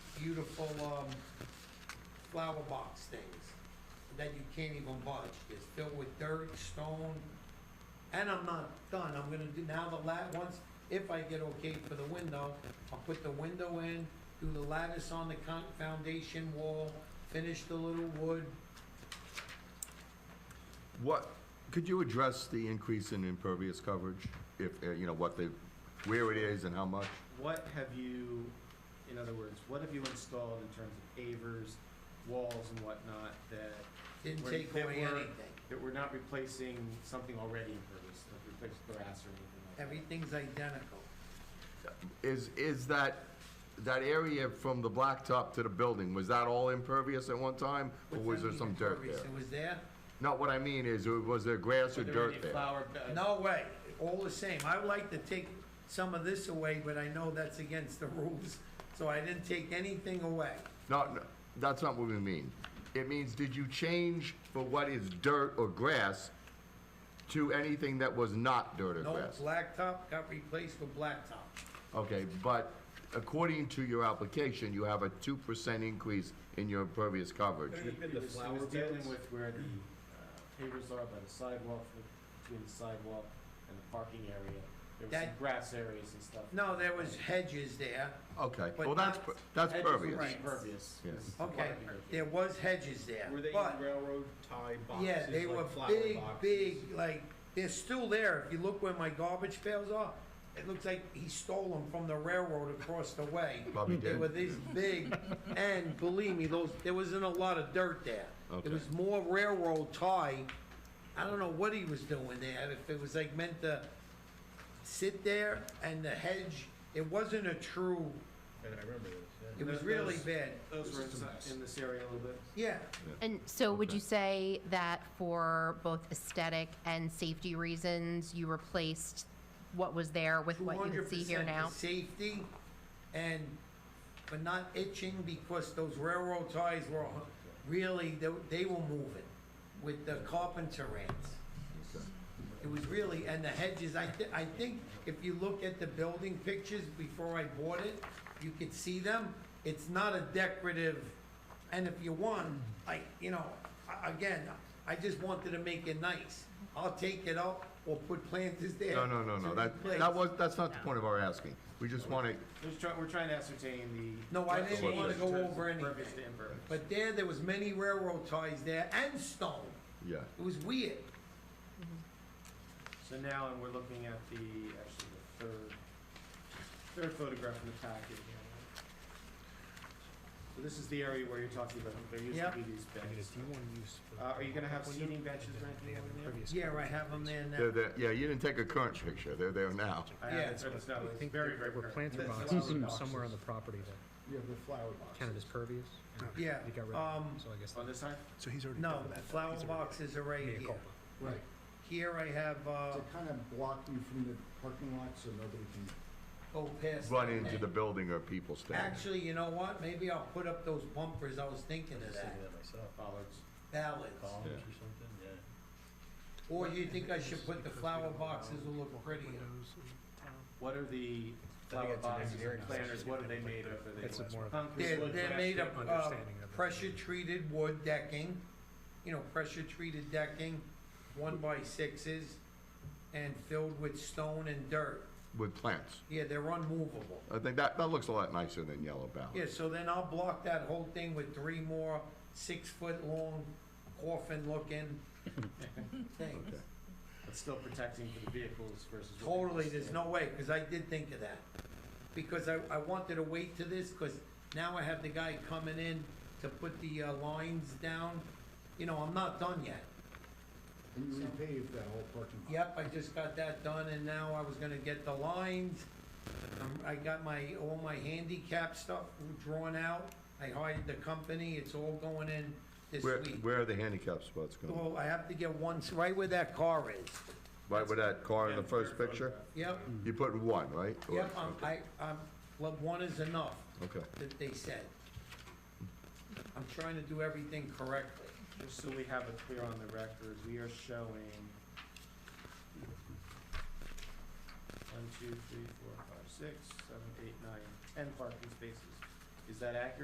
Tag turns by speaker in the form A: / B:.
A: beautiful, um, flower box things that you can't even budge. It's filled with dirt, stone, and I'm not done. I'm gonna do, now the lat, once, if I get okay for the window, I'll put the window in, do the lattice on the con, foundation wall, finish the little wood.
B: What, could you address the increase in impervious coverage? If, uh, you know, what the, where it is and how much?
C: What have you, in other words, what have you installed in terms of pavers, walls and whatnot that,
A: Didn't
C: Where-
A: take
C: that
A: away
C: were-
A: anything.
C: that we're not replacing something already impervious, like replace grass or anything like that?
A: Everything's identical.
B: Is, is that, that area from the blacktop to the building, was that all impervious at one time? Or
A: What's that
B: was there
A: mean,
B: some dirt
A: impervious?
B: there?
A: It was there?
B: No, what I mean is, uh, was there grass or
C: Were there
B: dirt
C: any
B: there?
C: flower beds?
A: No way. All the same. I would like to take some of this away, but I know that's against the rules. So I didn't take anything away.
B: No, no, that's not what we mean. It means, did you change for what is dirt or grass to anything that was not dirt or
A: No
B: grass?
A: blacktop got replaced with blacktop.
B: Okay, but according to your application, you have a two percent increase in your impervious coverage.
D: Could it have been
C: It
D: the
C: was-
D: flower
C: It was dealing
D: beds?
C: with where the uh, pavers are by the sidewalk, between the sidewalk and the parking area. There was some
A: That-
C: grass areas and stuff.
A: No, there was hedges there.
B: Okay,
A: But
B: well, that's,
A: not-
B: per- that's
C: Hedges were
B: pervious.
C: Impervious.
B: Yes.
C: This is
A: Okay,
C: impervious.
A: there was hedges there.
D: Were they
A: But,
D: in railroad tie boxes?
A: yeah, they
D: like
A: were
D: flower
A: big,
D: boxes?
A: big, like, they're still there. If you look where my garbage pails are, it looks like he stole them from the railroad across the way.
B: Probably
A: They were
B: did.
A: this big, and believe me, those, there wasn't a lot of dirt there.
B: Okay.
A: There was more railroad tie. I don't know what he was doing there, if it was like meant to sit there and the hedge, it wasn't a true,
D: Yeah, I remember this, yeah.
A: it was
C: Those-
A: really bad.
C: Those were
D: This is a
C: inside-
D: mess.
C: in this area a little bit.
A: Yeah,
E: And so would
B: Okay.
E: you say that for both aesthetic and safety reasons, you replaced what was there with
A: two
E: what you
A: hundred
E: can see here
A: percent for
E: now?
A: safety and, but not itching because those railroad ties were really, they, they were moving with the carpenter ants. It was really, and the hedges, I thi- I think if you look at the building pictures before I bought it, you could see them. It's not a decorative, and if you want, I, you know, a- again, I just wanted to make it nice. I'll take it out or put planters there.
B: No, no, no,
A: to
B: no, that,
A: replace.
B: that was, that's not the point of our asking. We just wanna,
C: We're trying, we're trying to ascertain the.
A: No, I didn't
C: change
A: wanna
C: in
A: go
C: terms of
A: over anything.
C: Impervious to impervious.
A: But there, there was many railroad ties there and stone.
B: yeah,
A: It was weird.
C: So now, and we're looking at the, actually, the third, third photograph in the packet here. So this is the area where you're talking about, there used
A: Yep.
C: to be these benches. Uh, are you gonna have seating benches or anything over there?
A: Yeah, I have them there
B: they're,
A: now.
B: there- yeah, you didn't take a current picture, they're there now.
C: I
A: Yeah.
C: haven't, it's not,
D: I
C: it's
D: think
C: very,
D: there-
C: very
D: there were
C: current.
D: planter
C: The
D: boxes
C: flower
D: and
F: somewhere on the
C: boxes.
F: property that
D: You have the flower
F: counted as pervious.
A: Yeah,
F: You got rid of
A: um,
F: it, so I guess.
C: On this side?
G: So he's already
A: no,
G: done that.
A: flower boxes are right here.
H: Right,
A: Here I have, uh,
H: to kind of block you from the parking lot so nobody can,
A: go past.
B: Run
A: that.
B: into the building or people standing.
A: Actually, you know what? Maybe I'll put up those bumpers. I was thinking of that.
D: myself.
C: Bollards.
A: Ballads.
D: Columns
B: Yeah.
D: or something, yeah.
A: Or you think I should put the flower boxes will look prettier?
C: What are the flower
D: it's an
C: boxes
D: engineering
C: and planters, what are they made of? Are they
F: That's a
C: less
F: more of a-
C: concrete,
A: They're,
C: wood,
A: they're
C: plastic?
A: made of, uh,
F: understanding of it.
A: pressure-treated wood decking, you know, pressure-treated decking, one by sixes, and filled with stone and dirt.
B: With plants.
A: Yeah, they're unmovable.
B: I think that, that looks a lot nicer than yellow
A: Yeah,
B: ballot.
A: so then I'll block that whole thing with three more six-foot-long coffin-looking things.
B: Okay.
C: But still protecting for the vehicles versus. what they
A: Totally,
C: used to
A: there's
C: be.
A: no way, because I did think of that. Because I, I wanted to wait to this, because now I have the guy coming in to put the uh, lines down. You know, I'm not done yet.
H: and you repave that whole parking lot.
A: Yep, I just got that done, and now I was gonna get the lines. Um, I got my, all my handicap stuff drawn out. I hired the company, it's all going in this
B: Where,
A: week.
B: where are the handicap spots going?
A: Well, I have to get one, s- right where that car is.
B: Right with that car in
C: Yeah,
B: the first
C: third
B: picture?
C: photograph.
A: Yep,
B: You put one, right? Or-
A: yep, um, I, um, well, one is enough,
B: Okay.
A: that they said. I'm trying to do everything correctly.
C: Just so we have it clear on the record, we are showing one, two, three, four, five, six, seven, eight, nine, ten parking spaces. Is that accurate?